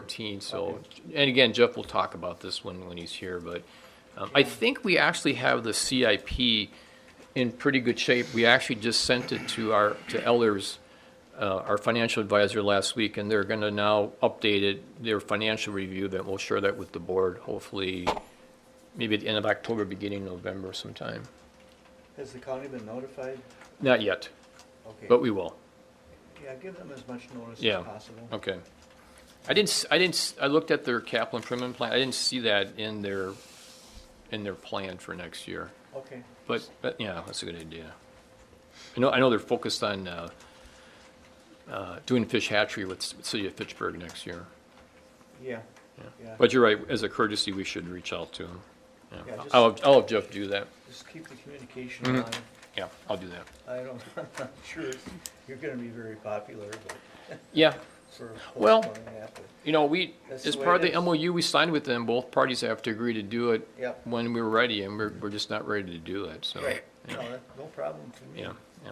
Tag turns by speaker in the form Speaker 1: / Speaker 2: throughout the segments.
Speaker 1: 14, so, and again, Jeff will talk about this when, when he's here, but um, I think we actually have the CIP in pretty good shape. We actually just sent it to our, to Ellers, uh, our financial advisor last week, and they're going to now update it, their financial review, that we'll share that with the board, hopefully, maybe at the end of October, beginning November sometime.
Speaker 2: Has the county been notified?
Speaker 1: Not yet,
Speaker 2: Okay.
Speaker 1: but we will.
Speaker 2: Yeah, give them as much notice
Speaker 1: Yeah.
Speaker 2: as possible.
Speaker 1: Okay. I didn't, s- I didn't, s- I looked at their capital improvement plan, I didn't see that in their, in their plan for next year.
Speaker 2: Okay,
Speaker 1: But, but, yeah, that's a good idea. I know, I know they're focused on, uh, uh, doing fish hatchery with s- City of Fitchburg next year.
Speaker 2: yeah, yeah.
Speaker 1: But you're right, as a courtesy, we should reach out to them. Yeah.
Speaker 2: Yeah, just-
Speaker 1: I'll, I'll have Jeff do that.
Speaker 2: Just keep the communication
Speaker 1: Mm-hmm.
Speaker 2: on.
Speaker 1: Yeah, I'll do that.
Speaker 2: I don't, I'm not sure it's- you're gonna be very popular, but
Speaker 1: Yeah,
Speaker 2: sort of.
Speaker 1: Well-
Speaker 2: postponing that, but-
Speaker 1: you know, we,
Speaker 2: That's
Speaker 1: as
Speaker 2: the way
Speaker 1: part of
Speaker 2: it
Speaker 1: the
Speaker 2: is.
Speaker 1: MOU we signed with them, both parties have to agree to do it
Speaker 2: Yep.
Speaker 1: when we're ready, and we're, we're just not ready to do it, so.
Speaker 2: Right, no, that- no problem for me.
Speaker 1: Yeah, yeah.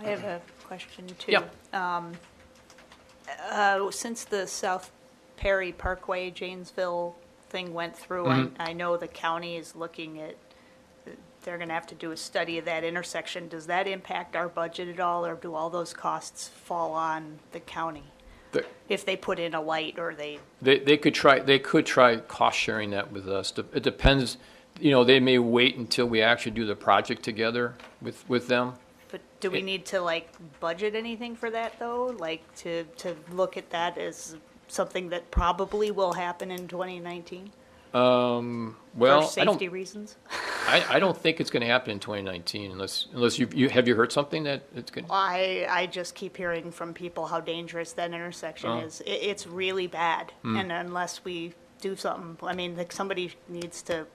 Speaker 3: I have a question too.
Speaker 1: Yeah.
Speaker 3: Uh, Since the South Perry Parkway Janesville thing went through,
Speaker 1: Mm-hmm.
Speaker 3: I, I know the county is looking at, they're gonna have to do a study of that intersection. Does that impact our budget at all, or do all those costs fall on the county?
Speaker 1: The-
Speaker 3: If they put in a light or they,
Speaker 1: They, they could try, they could try cost sharing that with us. Dep- It depends, you know, they may wait until we actually do the project together with, with them.
Speaker 3: but do we
Speaker 1: It-
Speaker 3: need to like budget anything for that though? Like to, to look at that as something that probably will happen in twenty nineteen? For
Speaker 1: Well, I don't,
Speaker 3: safety reasons?
Speaker 1: I, I don't think it's gonna happen in twenty nineteen unless, unless you, you, have you heard something that it's gonna?
Speaker 3: I, I just keep hearing from people how dangerous that intersection
Speaker 1: Oh.
Speaker 3: is. It, it's really bad.
Speaker 1: Hmm.
Speaker 3: And unless we do something, I mean, like somebody needs to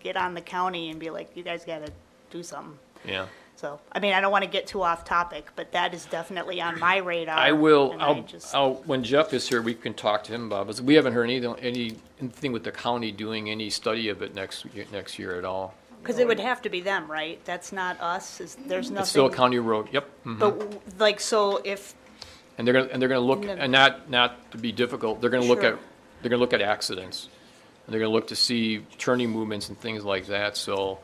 Speaker 3: get on the county and be like, you guys gotta do something.
Speaker 1: Yeah.
Speaker 3: So, I mean, I don't want to get too off topic, but that is definitely on my radar.
Speaker 1: I will,
Speaker 3: and I
Speaker 1: I'll,
Speaker 3: just-
Speaker 1: I'll, when Jeff is here, we can talk to him about, but we haven't heard anything, any, anything with the county doing any study of it next, ye- next year at all.
Speaker 3: Cause it would have to be them, right? That's not us, is, there's nothing.
Speaker 1: It's still a county road, yep. mhm.
Speaker 3: But w- like, so if,
Speaker 1: And they're gonna, and they're gonna look,
Speaker 3: No.
Speaker 1: and not, not to be difficult, they're gonna look
Speaker 3: Sure.
Speaker 1: at, they're gonna look at accidents. And they're gonna look to see turning movements and things like that, so,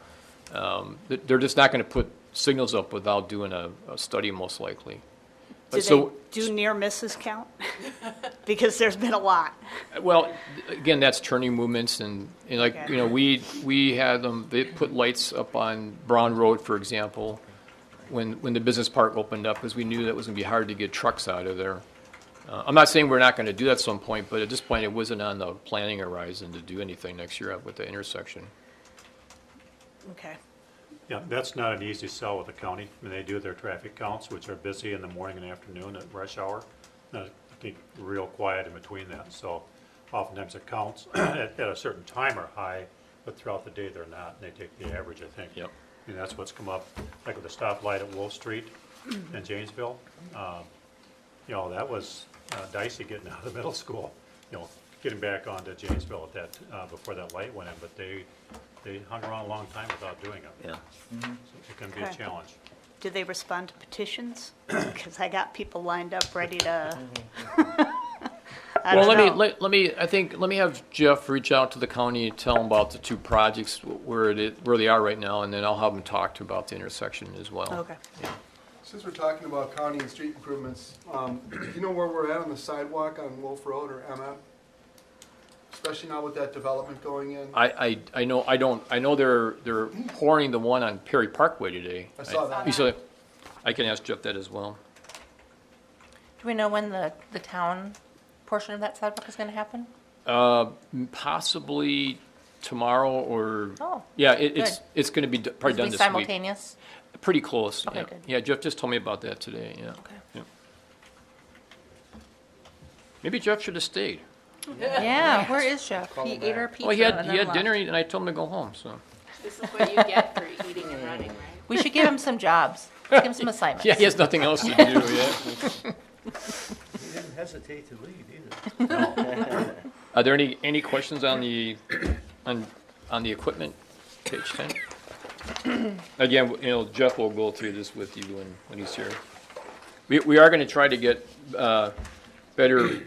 Speaker 1: um, they- they're just not gonna put signals up without doing a, a study most likely.
Speaker 3: do
Speaker 1: But
Speaker 3: they
Speaker 1: so,
Speaker 3: do near misses count? Because there's been a lot.
Speaker 1: well, again, that's turning movements and, and like,
Speaker 3: Okay.
Speaker 1: you know, we, we had them, they put lights up on Brown Road, for example, when, when the business park opened up, because we knew that was gonna be hard to get trucks out of there. Uh, I'm not saying we're not gonna do that at some point, but at this point, it wasn't on the planning horizon to do anything next year with the intersection.
Speaker 3: Okay.
Speaker 4: Yeah, that's not an easy sell with the county. I mean, they do their traffic counts, which are busy in the morning and afternoon at rush hour. Then I think real quiet in between that, so oftentimes the counts at, at a certain time are high, but throughout the day they're not, and they take the average, I think.
Speaker 1: Yep.
Speaker 4: And that's what's come up, like with the stoplight at Wolf Street in Janesville. Um, You know, that was uh, dicey getting out of the middle school, you know, getting back onto Janesville at that, uh, before that light went in, but they, they hung around a long time without doing it.
Speaker 1: Yeah.
Speaker 4: It can be a
Speaker 3: Okay.
Speaker 4: challenge.
Speaker 3: Do they respond to petitions? Because I got people lined up ready to. I
Speaker 1: Well,
Speaker 3: don't
Speaker 1: let me,
Speaker 3: know.
Speaker 1: let, let me, I think, let me have Jeff reach out to the county and tell them about the two projects, wh- where it, is- where they are right now, and then I'll have them talk to about the intersection as well.
Speaker 3: Okay.
Speaker 5: Since we're talking about county and street improvements, um, do you know where we're at on the sidewalk on Wolf Road or MM? Especially now with that development going in?
Speaker 1: I, I, I know, I don't, I know they're, they're pouring the one on Perry Parkway today.
Speaker 5: I saw that.
Speaker 1: You saw that? I can ask Jeff that as well.
Speaker 6: Do we know when the, the town portion of that sidewalk is gonna happen?
Speaker 1: Possibly tomorrow or.
Speaker 6: Oh,
Speaker 1: Yeah, it, it's,
Speaker 6: good.
Speaker 1: it's gonna be d- probably
Speaker 6: It'll
Speaker 1: done
Speaker 6: be
Speaker 1: this week.
Speaker 6: Simultaneous?
Speaker 1: Pretty close,
Speaker 6: Okay,
Speaker 1: yeah.
Speaker 6: good.
Speaker 1: Yeah, Jeff just told me about that today, yeah.
Speaker 6: Okay.
Speaker 1: Yeah. Maybe Jeff should have stayed.
Speaker 6: Yeah, where is Jeff?
Speaker 5: Call
Speaker 6: He
Speaker 5: him
Speaker 6: ate
Speaker 5: back.
Speaker 6: our
Speaker 1: Well, he
Speaker 6: pizza
Speaker 1: had,
Speaker 6: and
Speaker 1: he had
Speaker 6: then
Speaker 1: dinner
Speaker 6: left.
Speaker 1: and I told him to go home, so.
Speaker 7: This is what you get for eating and running, right?
Speaker 6: We should give him some jobs, give him some assignments.
Speaker 1: Yeah, he has nothing else to do, yeah.
Speaker 2: You didn't hesitate to leave either.
Speaker 1: Are there any, any questions on the, on, on the equipment, page ten? Again, you know, Jeff will go through this with you when, when he's here. We, we are gonna try to get, uh, better